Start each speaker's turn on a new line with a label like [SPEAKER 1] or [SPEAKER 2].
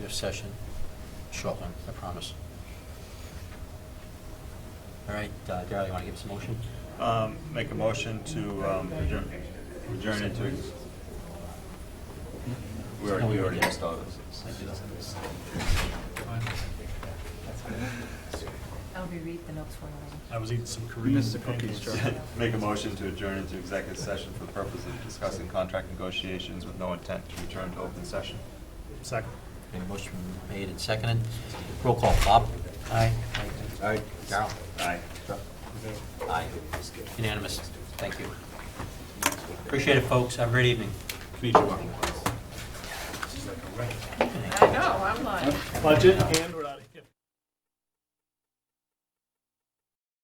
[SPEAKER 1] executive session. Short one, I promise. All right, uh, Darrell, you want to give us a motion?
[SPEAKER 2] Um, Make a motion to um, adjourn adjourn into. We already, we already started.
[SPEAKER 3] I'll reread the notes for you.
[SPEAKER 4] I was eating some Korean.
[SPEAKER 5] Missed the cookies,
[SPEAKER 4] pancakes.
[SPEAKER 5] Charlie.
[SPEAKER 2] Make a motion to adjourn into executive session for the purpose of discussing contract negotiations with no intent to return to open session.
[SPEAKER 4] Second.
[SPEAKER 1] Okay, motion made and seconded. Roll call, Bob? Aye. Aye. Darrell?
[SPEAKER 2] Aye.
[SPEAKER 1] Aye. Unanimous. Thank you. Appreciate it, folks. Have a great evening.
[SPEAKER 3] I know, I'm like.
[SPEAKER 4] Budget and we're out of here.